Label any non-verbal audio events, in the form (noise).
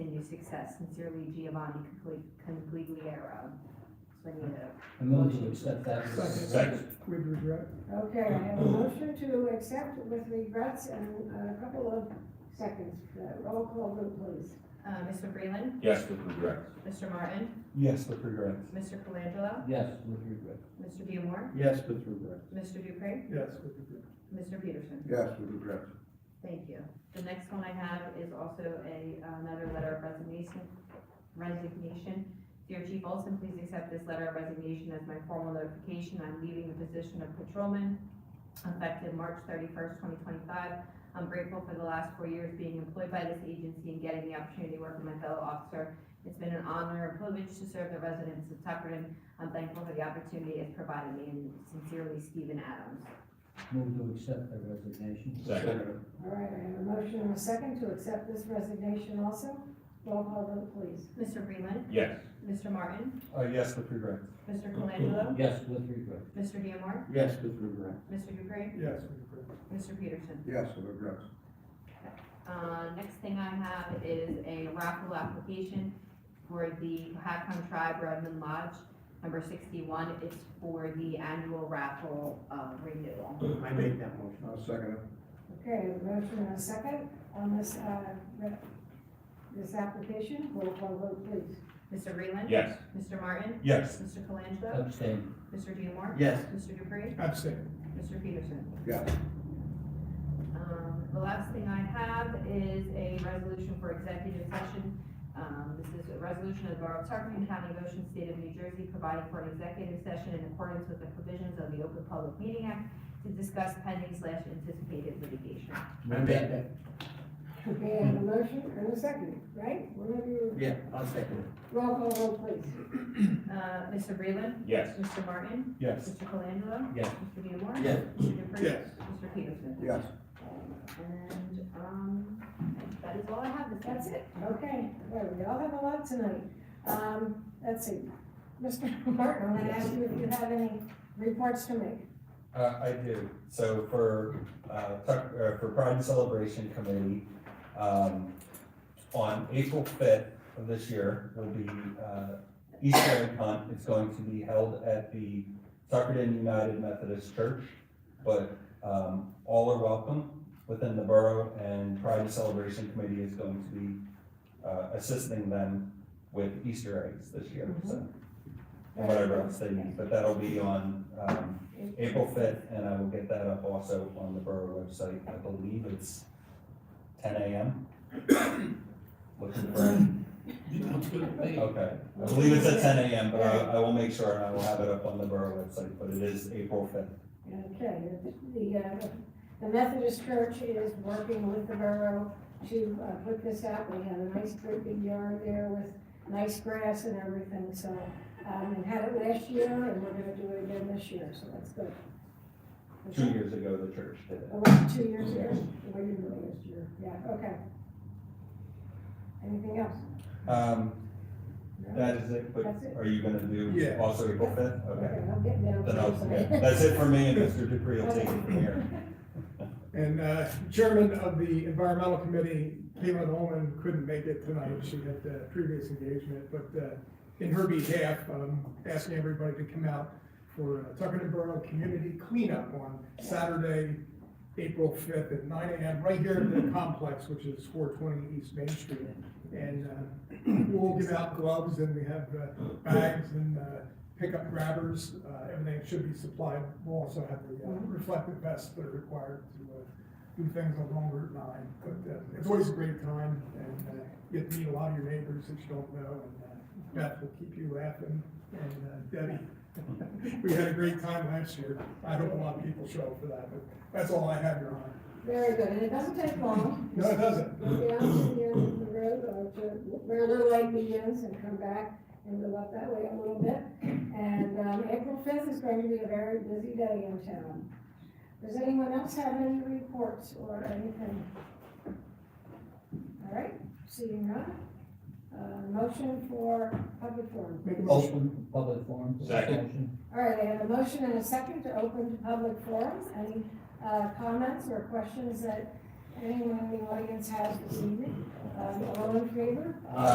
continued success. Sincerely, Giovanni Concli- Congligliero. So I need a, I move to accept that. Second. with regret. Okay, I have a motion to accept with regrets and a couple of seconds. Uh, Roll call vote, please. Uh, Mr. Freeland, Yes, with regret. Mr. Martin, Yes, with regret. Mr. Colangelo, Yes, with regret. Mr. Diemar, Yes, with regret. Mr. Dupre, Yes, with regret. Mr. Peterson. Yes, with regret. Thank you. the next one I have is also a, another letter of resignation, resignation. Dear Chief Olson, please accept this letter of resignation as my formal notification. I'm leaving the position of patrolman effective March thirty-first, twenty twenty-five. I'm grateful for the last four years being employed by this agency and getting the opportunity to work with my fellow officer. It's been an honor and privilege to serve the residents of Tuckerton. I'm thankful for the opportunity it's provided me, and sincerely, Stephen Adams. Move to accept the resignation. Second. All right, I have a motion and a second to accept this resignation also. Roll call vote, please. Mr. Freeland, Yes. Mr. Martin, Uh, yes, with regret. Mr. Colangelo, Yes, with regret. Mr. Diemar, Yes, with regret. Mr. Dupre, Yes, with regret. Mr. Peterson. Yes, with regret. Uh, next thing I have is a raffle application for the Cohasset Tribe Redmond Lodge, number sixty-one. It's for the annual raffle, uh, renewal. (clears throat) I make that motion. I'll Uh, second it. Okay, I have a motion and a second on this, uh, re- this application. Roll call vote, please. Mr. Freeland. Yes. Mr. Martin, Yes. Mr. Colangelo, Abstain. Mr. Diemar, Uh, Yes. Mr. Dupre, Abstain. Mr. Peterson. Yes. Um, the last thing I have is a resolution for executive session. Um, this is a resolution of the Borough of Tuckerton, County of Ocean, State of New Jersey, providing for an executive session in accordance with the provisions of the Open Public Meeting Act to discuss pending slash anticipated litigation. Move that. Okay, I have a motion and a second, right? Whenever you, Yeah, I'll second it. roll call vote, please. Uh, Mr. Freeland, Yes. Mr. Martin, Yes. Mr. Colangelo, Yes. Mr. Diemar. Yes. Mr. Dupre. Yes. Mr. Peterson. Yes. And, um, that is all I have, That's it, okay, well, we all have a lot tonight. Um, let's see, Mr. (laughs) Martin, I'm gonna ask you if you have any reports to make. Uh, I do. So for, uh, Tuck, uh, for Pride and Celebration Committee, um, on April fifth of this year will be, uh, Easter egg hunt. It's going to be held at the Tuckerton United Methodist Church. But, um, all are welcome within the borough and Pride and Celebration Committee is going to be, uh, assisting them with Easter eggs this year, so. And whatever else they need, but that'll be on, um, April fifth, and I will get that up also on the borough website. I believe it's ten AM. (coughs) Looking for, Sounds good to me. okay, I believe it's at ten AM, but I, I will make sure and I will have it up on the borough website, but it is April fifth. Okay, the, uh, the Methodist Church is working with the borough to, uh, put this out. We had a nice great big yard there with nice grass and everything, so, um, and had it last year, and we're gonna do it again this year, so that's good. Two years ago, the church did it. It was two years ago, or even last year, yeah, okay. Anything else? Um, No? that is it, Uh, but That's it. are you gonna do Yeah. also April fifth? Okay. Okay, I'll get down. Then I'll, yeah, that's (laughs) it for me, and Mr. Dupree will take it from here. And uh, Chairman of the Environmental Committee, Caitlin Olin, couldn't make it tonight. She had a previous engagement, but uh, in her behalf, I'm asking everybody to come out for uh, Tuckerton Borough Community Cleanup on Saturday, April fifth at nine AM, right here in the complex, which is four twenty East Main Street. And uh, (clears throat) we'll give out gloves and we have uh, bags and uh, pickup grabbers. Uh, Everything should be supplied. We'll also have the uh, reflective vests that are required to uh, do things along Route nine. But uh, it's always a great time and uh, you get to meet a lot of your neighbors that you don't know. And uh, Beth will keep you laughing and uh, Debbie. (laughs) We had a great time last year. I hope a lot of people show up for that, but that's all I have, Your Honor. Very good, and it doesn't take long. No, it doesn't. (laughs) Go down to the end of the road, or to where the light begins and come back and go up that way a little bit. And, um, April fifth is going to be a very busy day in town. Does anyone else have any reports or anything? All right, seeing none. Uh, motion for public forum. Make a motion. Open public forum. for Second. discussion. All right, I have a motion and a second to open to public forums. Any uh, comments or questions that anyone in the audience has this evening? Um, All in favor? Aye.